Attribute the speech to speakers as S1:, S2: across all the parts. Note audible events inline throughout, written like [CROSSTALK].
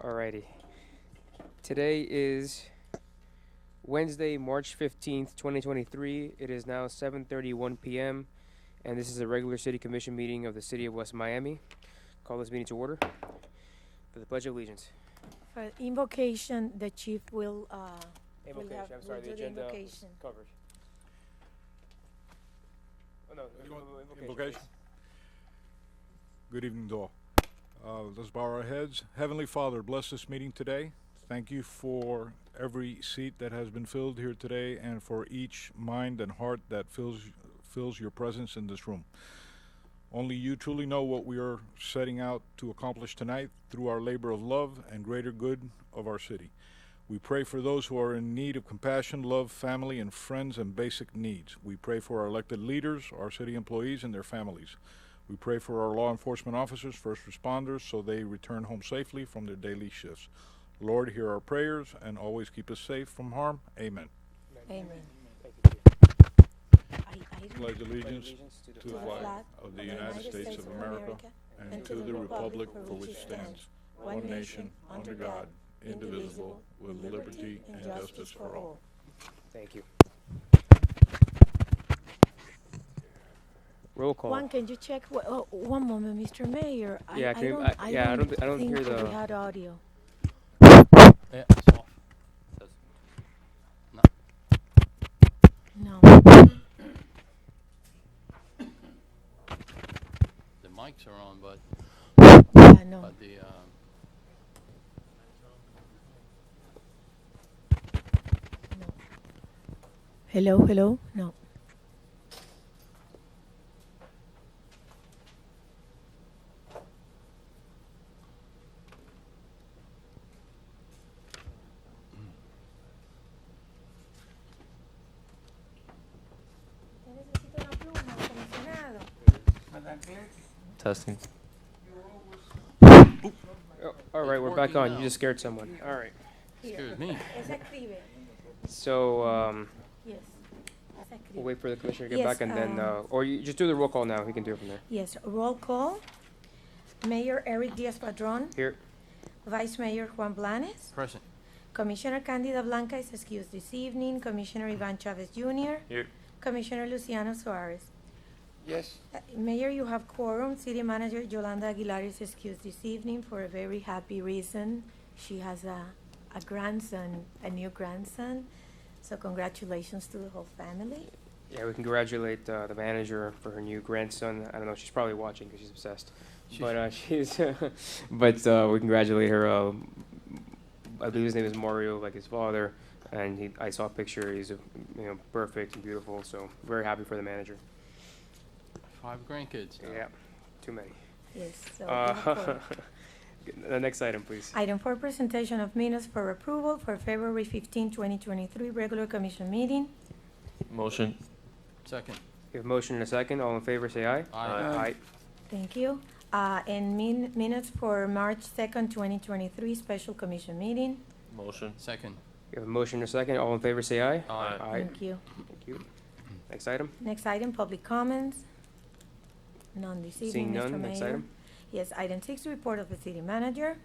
S1: Alrighty. Today is Wednesday, March fifteenth, twenty twenty-three. It is now seven thirty-one PM, and this is a regular city commission meeting of the city of West Miami. Call this meeting to order for the Pledge of Allegiance.
S2: For invocation, the chief will, uh, We'll
S1: Invocation,
S2: have-
S1: I'm sorry, the
S2: we'll do the
S1: agenda was
S2: invocation.
S1: covered. Oh, no,
S3: You want
S1: invocation, please.
S3: Invocation. Good evening, all. Uh, Let's bow our heads. Heavenly Father, bless this meeting today. Thank you for every seat that has been filled here today and for each mind and heart that fills, fills your presence in this room. Only you truly know what we are setting out to accomplish tonight through our labor of love and greater good of our city. We pray for those who are in need of compassion, love, family, and friends, and basic needs. We pray for our elected leaders, our city employees, and their families. We pray for our law enforcement officers, first responders, so they return home safely from their daily shifts. Lord, hear our prayers and always keep us safe from harm. Amen.
S2: amen.
S1: Thank you, Chief.
S2: I, I don't-
S3: Pledge allegiance
S1: Allegiance to the
S3: to the
S1: flag
S3: flag of the United States of America and to the republic for which it stands, one nation, under God, indivisible, with liberty and justice for all.
S1: Thank you. Roll call.
S2: Juan, can you check, wh- oh, one moment, Mr. Mayor. I-
S1: Yeah,
S2: I
S1: can you-
S2: don't-
S1: I- yeah, I don't thi- I don't hear
S2: think
S1: the-
S2: We had audio.
S4: Yeah, it's off. Says-
S1: [LAUGHS]
S2: No,
S4: The mics are on, but,
S2: yeah, no.
S4: but the, um,
S2: Hello, hello, no.
S5: Testing.
S1: Oh, all right, we're back
S4: working
S1: on. You
S4: now.
S1: just scared someone. All right.
S4: excuse me.
S1: So um,
S2: Yes.
S1: we'll wait for the commissioner to get
S2: Yes,
S1: back, and then, uh,
S2: um,
S1: or you just do the roll call now. He can do it from there.
S2: Yes, roll call. Mayor Eric Diaz-Padrón,
S1: Here,
S2: Vice Mayor Juan Blanes,
S4: Present.
S2: Commissioner Candida Blanca is excused this evening, Commissioner Ivan Chavez Jr.,
S5: Here.
S2: Commissioner Luciano Suarez.
S4: Yes.
S2: Uh, Mayor, you have quorum. City Manager Yolanda Aguilar is excused this evening for a very happy reason. She has a, a grandson, a new grandson, so congratulations to the whole family.
S1: yeah, we congratulate uh, the manager for her new grandson. I don't know. She's probably watching because she's obsessed. But uh, she's, [LAUGHS] but uh, we congratulate her. Uh, I believe his name is Mario, like his father. And he, I saw a picture. He's, uh, you know, perfect and beautiful. So very happy for the manager.
S4: Five grandkids. now.
S1: Yeah, too many.
S2: Yes, so. you have
S1: Uh,
S2: quorum.
S1: [LAUGHS] the next item, please.
S2: Item four, presentation of minutes for approval for February 15, 2023, regular commission meeting.
S5: Motion.
S4: Second.
S1: We have a motion and a second. All in favor, say aye.
S4: Aye.
S2: Thank you. Uh, And min- minutes for March 2nd, 2023, special commission meeting.
S5: Motion.
S4: Second.
S1: We have a motion and a second. All in favor, say aye.
S5: Aye.
S2: Thank you.
S1: Thank you. Next item?
S2: Next item, public comments. None this
S1: Seeing
S2: evening, Mr.
S1: none, next
S2: Mayor.
S1: item?
S2: Yes, item six, report of the city manager.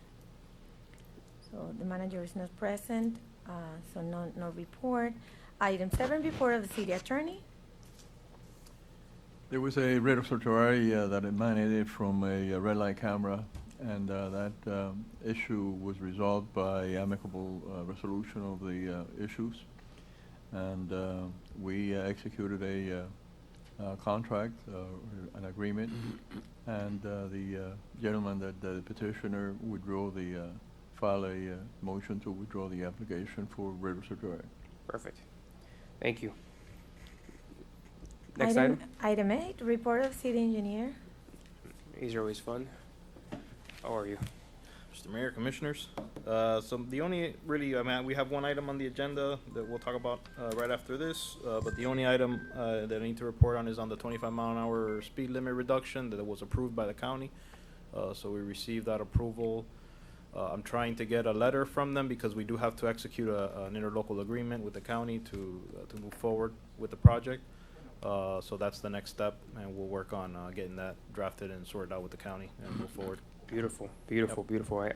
S2: So the manager is not present, uh, so no, no report. Item seven, report of the city attorney.
S6: There was a red certiorari uh, that emanated from a uh, red light camera, and uh, that um, issue was resolved by amicable uh, resolution of the uh, issues. And uh, we uh, executed a uh, uh, contract, uh, an agreement, and uh, the uh, gentleman that the petitioner withdrew the, uh, file a uh, motion to withdraw the application for red certiorari.
S1: Perfect. Thank you. Next item?
S2: Item eight, report of city engineer.
S1: These are always fun. How are you?
S7: Mr. Mayor, Commissioners, uh, so the only, really, I mean, we have one item on the agenda that we'll talk about, uh, right after this, uh, but the only item, uh, that I need to report on is on the twenty-five mile an hour speed limit reduction that was approved by the county. Uh, so we received that approval. Uh, I'm trying to get a letter from them because we do have to execute a, an interlocal agreement with the county to, uh, to move forward with the project. Uh, so that's the next step, and we'll work on, uh, getting that drafted and sorted out with the county and move forward.
S1: Beautiful, beautiful, beautiful. I, I-